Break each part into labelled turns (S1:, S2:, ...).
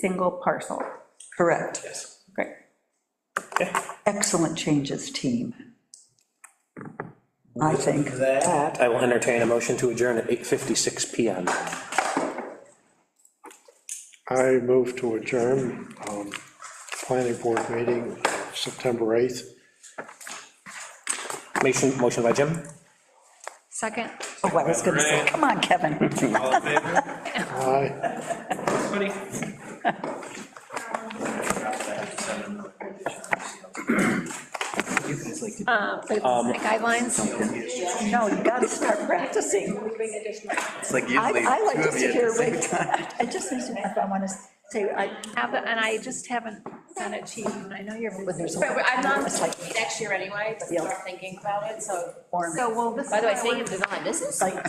S1: single parcel.
S2: Correct.
S3: Yes.
S1: Great.
S2: Excellent changes, team. I think.
S3: That, I will entertain a motion to adjourn at 8:56 PM.
S4: I move to adjourn um, planning board meeting September 8th.
S3: Motion, motion by Jim?
S5: Second.
S2: Oh, I was gonna say, come on, Kevin.
S6: All in favor?
S4: Aye.
S6: Buddy?
S5: Uh, the
S7: Um,
S5: Guidelines.
S2: No, you gotta start practicing.
S6: It's like
S2: I,
S6: usually
S2: I like
S6: two
S2: to
S6: of
S2: sit
S6: you.
S2: here, wait, I just, need to- if I wanna say, I,
S5: Have- And I just haven't sent it to you, and I know you're.
S2: there's a.
S7: But we- I'm not
S2: It's like,
S7: next year anyway, but
S2: Yeah.
S7: start thinking about it, so.
S5: So, well, this is.
S7: By the way,
S5: why I
S7: speaking
S5: wanted-
S7: of design, this is,
S2: like,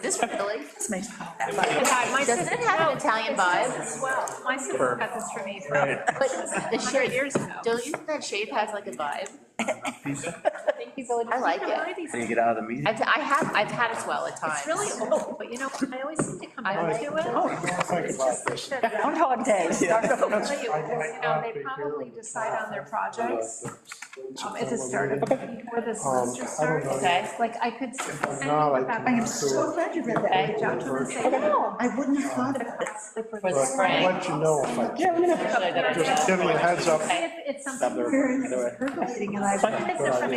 S7: this really,
S2: this makes, that
S5: My
S7: doesn't
S5: sister
S7: it have an Italian vibe?
S5: as well. My sister got this for me.
S7: But the
S5: Hundred
S7: shape,
S5: years ago.
S7: don't you think that shape has like a vibe?
S5: Thank you, Village.
S7: I like
S5: People
S7: it.
S5: are these-
S6: When you get out of the meeting.
S7: I've, I have, I've had it well at times.
S5: It's really old, but you know, I always seem to come
S7: I
S5: back
S7: like
S5: to
S7: it.
S5: it. It's just like that-
S2: Groundhog Day, start over.
S5: I'll tell you, you know, They probably decide on their projects um, at the start of, before
S7: Um,
S5: the semester starts.
S7: Okay.
S5: Like, I could.
S4: not, I
S5: I
S4: can
S5: am
S4: do
S5: so
S4: it.
S5: glad you read that.
S7: Okay.
S5: Reach out to them and say, no.
S2: I wouldn't have thought of it.
S7: For the
S4: But I'll
S7: spring.
S4: let you know if I,
S7: Should I do it?
S4: just give me a heads up.
S5: If it's something.
S2: Percolating, and I.
S5: If it's a-